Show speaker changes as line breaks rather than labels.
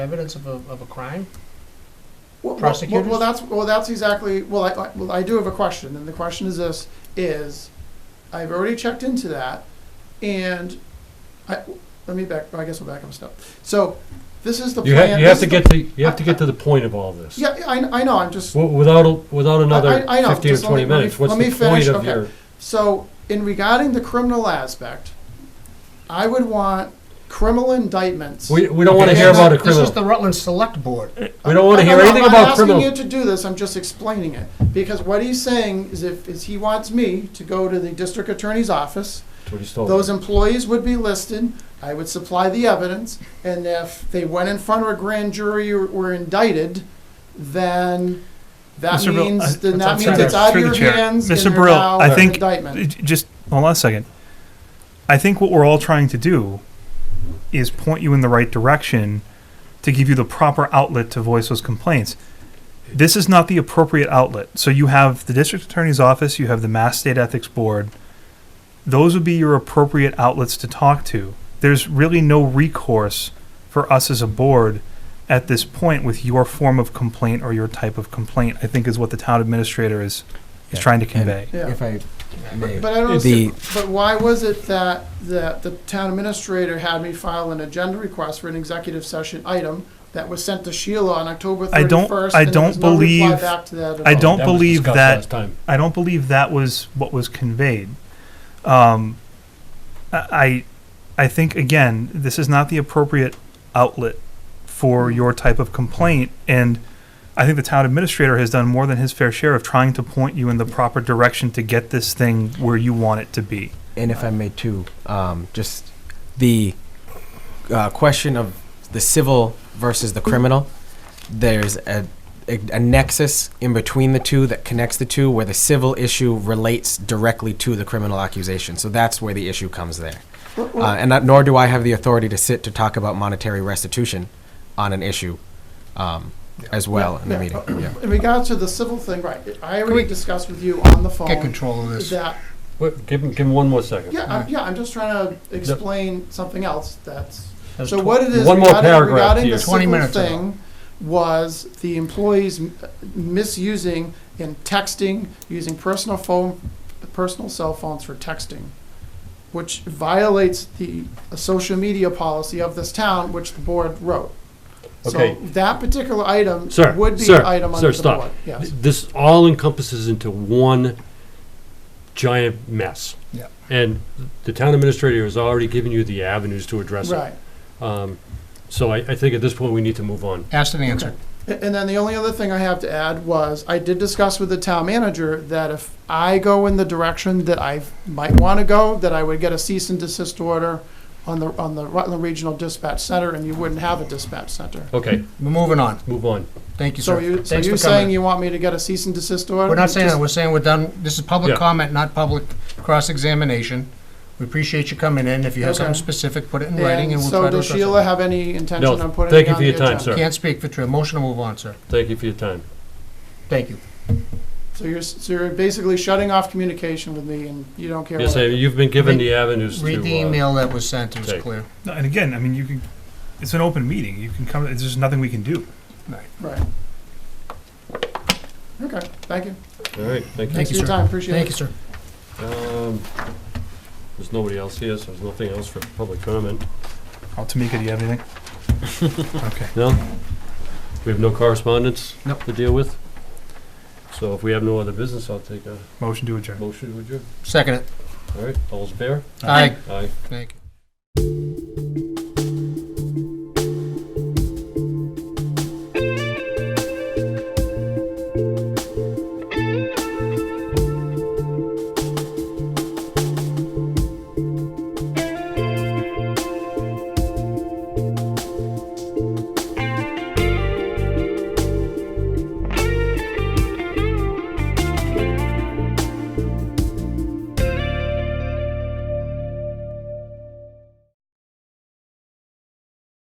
evidence of a, of a crime?
Well, well-
Prosecutors?
Well, well, that's, well, that's exactly, well, I- I, well, I do have a question, and the question is this, is, I've already checked into that, and I, let me back, I guess we'll back up a step. So, this is the
You
plan.
have, you have
this
to
is the-
get to, you have to get to the point of all this.
Yeah, I, I know, I'm just,
W- Without, a- without another
I- I know,
fifteen or
just let me-
twenty
let me-
minutes, what's
let me
the point
finish,
of
okay.
your?
so, in regarding the criminal aspect, I would want criminal indictments.
We, we don't wanna
Okay,
hear
no,
about a
This is
criminal,
the Rutland Select Board.
we don't wanna
No,
hear
no,
anything about
I'm not
criminal.
asking you to do this, I'm just explaining it. Because what he's saying is if, is he wants me to go to the district attorney's office,
That's what he's told
those
me.
employees would be listed, I would supply the evidence, and if they went in front of a grand jury or were indicted, then that
Mr. Brill, I-
means, then that
sorry,
means it's out of
through the
your
chair.
hands and
Mr.
they're
Brill,
now
I
an
think-
indictment.
J- Just hold on a second. I think what we're all trying to do is point you in the right direction to give you the proper outlet to voice those complaints. This is not the appropriate outlet. So you have the district attorney's office, you have the Mass State Ethics Board. Those would be your appropriate outlets to talk to. There's really no recourse for us as a board at this point with your form of complaint or your type of complaint, I think is what the town administrator is, is trying to convey.
Yeah.
If I may.
But I don't
The-
understand, but why was it that, that the town administrator had me file an agenda request for an executive session item that was sent to Sheila on October
I don't-
thirty-first?
I don't believe-
Back to that at
I
all?
don't
That was
believe
discussed
that-
last time.
I don't believe that was what was conveyed. Um, I, I think again, this is not the appropriate outlet for your type of complaint, and I think the town administrator has done more than his fair share of trying to point you in the proper direction to get this thing where you want it to be.
And if I may too, um, just the uh, question of the civil versus the criminal, there's a, a, a nexus in between the two that connects the two where the civil issue relates directly to the criminal accusation. So that's where the issue comes there. Uh, and not, nor do I have the authority to sit to talk about monetary restitution on an issue um, as well in the
Yeah. Uh,
meeting. Yeah.
In regards to the civil thing, right, I
we-
already discussed with you on the phone.
Get control of this.
That,
Wait, Give him, give him one more second.
yeah, I'm, yeah, I'm just trying to explain something else that's,
That's
so what it is
One more
regarding,
paragraph
regarding
here.
the
20
civil
minutes ago.
thing was the employees m- misusing and texting, using personal phone, personal cell phones for texting, which violates the social media policy of this town, which the board wrote. So
Okay.
that particular item
Sir,
would be
sir,
an item
sir,
under the
stop.
board, yes.
Th- This all encompasses into one giant mess.
Yeah.
And the town administrator has already given you the avenues to address it.
Right.
Um, So I, I think at this point, we need to move on.
Asked and answered.
A- And then the only other thing I have to add was, I did discuss with the town manager that if I go in the direction that I might want to go, that I would get a cease and desist order on the, on the Rutland Regional Dispatch Center, and you wouldn't have a dispatch center.
Okay,
We're moving on.
move on.
Thank you,
So
sir.
you, so
Thanks
you're
for coming.
saying you want me to get a cease and desist order?
We're not saying that,
Just-
we're saying we're done, this is public
Yeah.
comment, not public cross-examination. We appreciate you coming in, if you have something
Okay.
specific, put it in writing and
And
we'll try
so
to
does
address
Sheila
it.
have any intention
No,
on putting
thank
it
you
on
for
the
your time,
agenda?
sir.
Can't speak for Trill, motion to move on, sir.
Thank you for your time.
Thank you.
So you're, s- so you're basically shutting off communication with me, and you don't care
Yes,
what I
I- you've been given the avenues to.
Read the
uh,
email that was sent, it was
take.
clear.
No, and again, I mean, you can, it's an open meeting. You can come. There's just nothing we can do.
Right. Okay, thank you.
All right, thank you.
Thank
Thanks for your
sir.
time, appreciate it.
Thank you, sir.
Um, There's nobody else here, so there's nothing else for public comment.
Oh, Tamika, do you have anything? okay.
No? We have no correspondence?
Nope.
To deal with? So if we have no other business, I'll take a
Motion to adjourn.
motion to adjourn.
Second it.
All right, all's fair?
Aye.
Aye.
Thank you.